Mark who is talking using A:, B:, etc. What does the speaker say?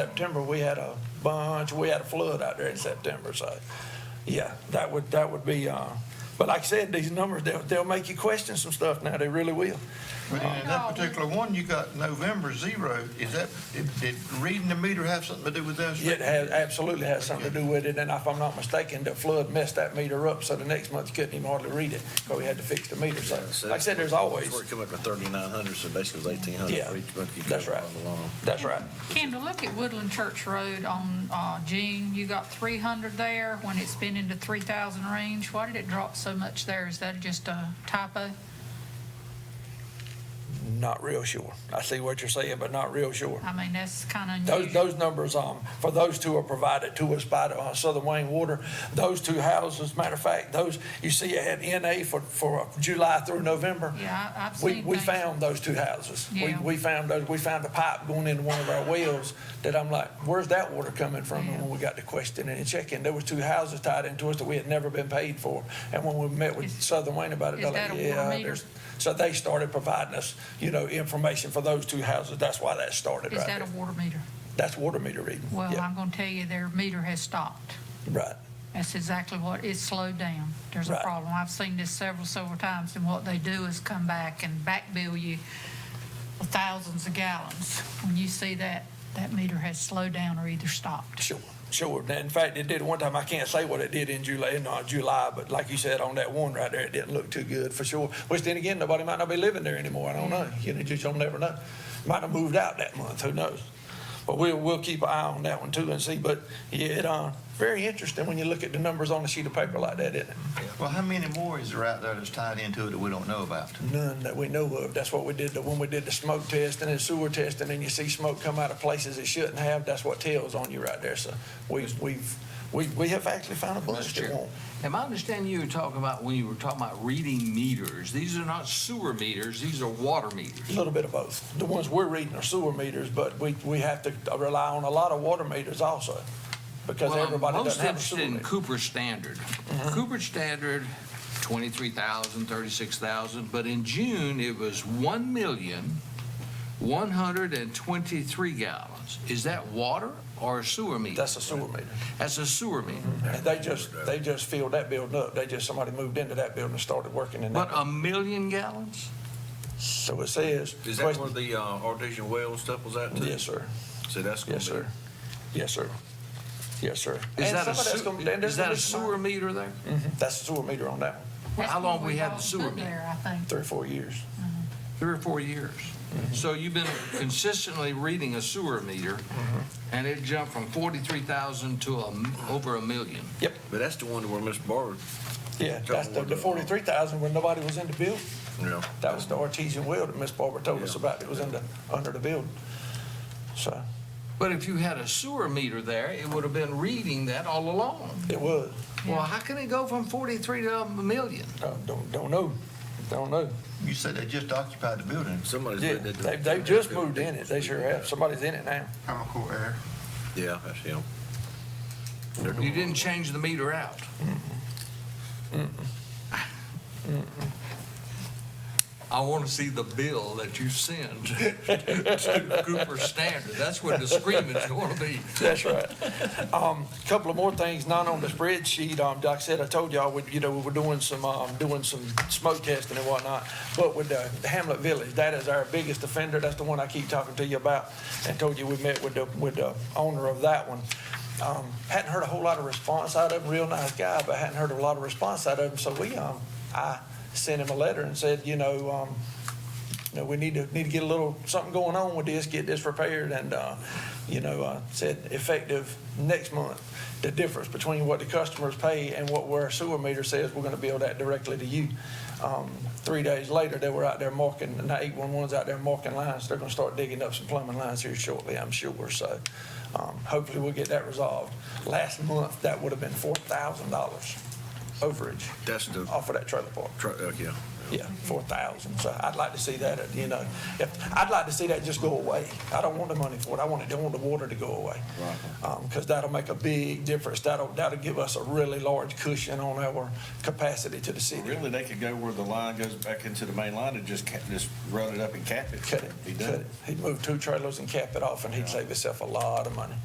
A: September, we had a bunch, we had a flood out there in September, so, yeah, that would, that would be, uh, but like I said, these numbers, they'll, they'll make you question some stuff now, they really will.
B: But in that particular one, you got November zero. Is that, did, did reading the meter have something to do with this?
A: It has, absolutely has something to do with it, and if I'm not mistaken, the flood messed that meter up, so the next month you couldn't even hardly read it, because we had to fix the meter, so, like I said, there's always,
C: That's where it come up to thirty-nine hundred, so basically it was eighteen hundred
A: Yeah,
C: for each month you
A: that's
C: go
A: right.
C: along.
A: that's right.
D: Kendall, look at Woodland Church Road on uh, June, you got 300 there, when it's been into 3,000 range, why did it drop so much there? Is that just a typo?
A: Not real sure. I see what you're saying, but not real sure.
D: I mean, that's kind of
A: Those,
D: unusual.
A: those numbers, um, for those two are provided to us by the, uh, Southern Wayne Water. Those two houses, matter of fact, those, you see it had NA for, for July through November.
D: Yeah, I- I've seen
A: We,
D: things.
A: we found those two houses. We,
D: Yeah.
A: we found those, we found a pipe going into one of our wells that I'm like, where's that water coming from? And when we got to questioning and checking, there was two houses tied into us that we had never been paid for. And when we met with
D: Is-
A: Southern Wayne about it,
D: is
A: they're like,
D: that a water
A: yeah,
D: meter?"
A: there's. So they started providing us, you know, information for those two houses. That's why that started
D: Is
A: right
D: that
A: there.
D: a water meter?
A: That's water meter reading.
D: Well,
A: Yeah,
D: I'm going to tell you, their meter has stopped.
A: Right.
D: That's exactly what, it's slowed down. There's a
A: Right.
D: problem. I've seen this several, several times, and what they do is come back and back bill you thousands of gallons. When you see that, that meter has slowed down or either stopped.
A: Sure, sure. Now, In fact, it did one time, I can't say what it did in July, in uh, July, but like you said, on that one right there, it didn't look too good for sure. Which then again, nobody might not be living there anymore, I don't know,
D: Mm.
A: you know, just, you'll never know. Might have moved out that month, who knows? But we'll, we'll keep an eye on that one too and see, but yeah, it, uh, very interesting when you look at the numbers on a sheet of paper like that, isn't it?
B: Well, how many more is there out there that's tied into it that we don't know about?
A: None that we know of, that's what we did, the- when we did the smoke testing and sewer testing, and you see smoke come out of places it shouldn't have, that's what tells on you right there, so we, we've, we, we have actually found a bunch that
E: Mr. Chair.
A: won't.
E: Am I understanding you were talking about, when you were talking about reading meters, these are not sewer meters, these are water
A: A
E: meters?
A: little bit of both. The ones we're reading are sewer meters, but we, we have to rely on a lot of water meters also, because
E: Well, I'm
A: everybody
E: most
A: doesn't have a
E: interested
A: sewer
E: in
A: meter. Uh-huh.
E: Cooper Standard. Cooper Standard, 23,000, 36,000, but in June, it was 1,123 gallons. Is that water or a sewer meter?
A: That's a sewer meter.
E: That's a sewer meter.
A: And they just, they just filled that building up. They just, somebody moved into that building and started working in
E: But uh,
A: that.
E: a million gallons?
A: So it says.
C: Is that where the, uh, artesian well and stuff was at too?
A: Yes, sir.
C: So that's gonna
A: Yes,
C: be,
A: sir. Yes, sir. Yes, sir.
E: Is
A: And
E: that a
A: some of that's
E: sew-
A: gonna- and there's
E: is that
A: gonna
E: a
A: be some-
E: sewer meter there?
A: That's a sewer meter on that one,
D: That's
E: How
D: what
E: long we
D: we've
E: had the
D: all
E: sewer
D: been
E: meter?
D: There, I think.
A: three or four years.
E: three or four years. So you've been consistently reading a sewer meter, and it jumped from 43,000 to a m- over a million.
C: but that's the one where Miss Barber,
A: Yeah, that's the, the forty-three thousand when nobody was in the building.
C: you know.
A: That was the artesian well that Miss Barber told us
C: Yeah.
A: about. It was in the, under the building. So,
E: But if you had a sewer meter there, it would have been reading that all along.
A: it was.
E: Well, how can it go from 43 to a million?
A: Uh, Don't, don't know, don't know.
B: You said they just occupied the building.
C: Somebody's.
A: Yeah,
C: read that-
A: they, they just moved in it, they sure have, somebody's in it now.
F: chemical air.
C: Yeah, that's him.
E: You didn't change the meter out. I want to see the bill that you send to Cooper Standard. That's where the screaming's going to be.
A: That's right. Um, couple of more things, not on the spreadsheet. Um, like I said, I told y'all, we, you know, we were doing some, um, doing some smoke testing and whatnot. But with the the Hamlet Village, that is our biggest offender. That's the one I keep talking to you about. And told you we met with the, with the owner of that one. Um, hadn't heard a whole lot of response out of him, real nice guy, but hadn't heard a lot of response out of him. So we, um, I sent him a letter and said, you know, um, you know, we need to, need to get a little, something going on with this, get this repaired, and, uh, you know, uh, said effective next month. The difference between what the customers pay and what our sewer meter says, we're gonna bill that directly to you. Um, three days later, they were out there marking, and the eight-one-one's out there marking lines, they're gonna start digging up some plumbing lines here shortly, I'm sure, so, um, hopefully we'll get that resolved. Last month, that would have been four thousand dollars overage
C: That's the
A: off of that trailer park.
C: truck, uh, okay.
A: Yeah, four thousand, so I'd like to see that, uh, you know, if, I'd like to see that just go away. I don't want the money for it, I want it, I want the water to go away. Right. Um, cause that'll make a big difference, that'll, that'll give us a really large cushion on our capacity to the city.
C: Really, they could go where the line goes back into the main line and just ca- just run it up and cap it.
A: Cut it,
C: Be done.
A: cut it, he'd move two trailers and cap it off, and he'd save himself a lot of money.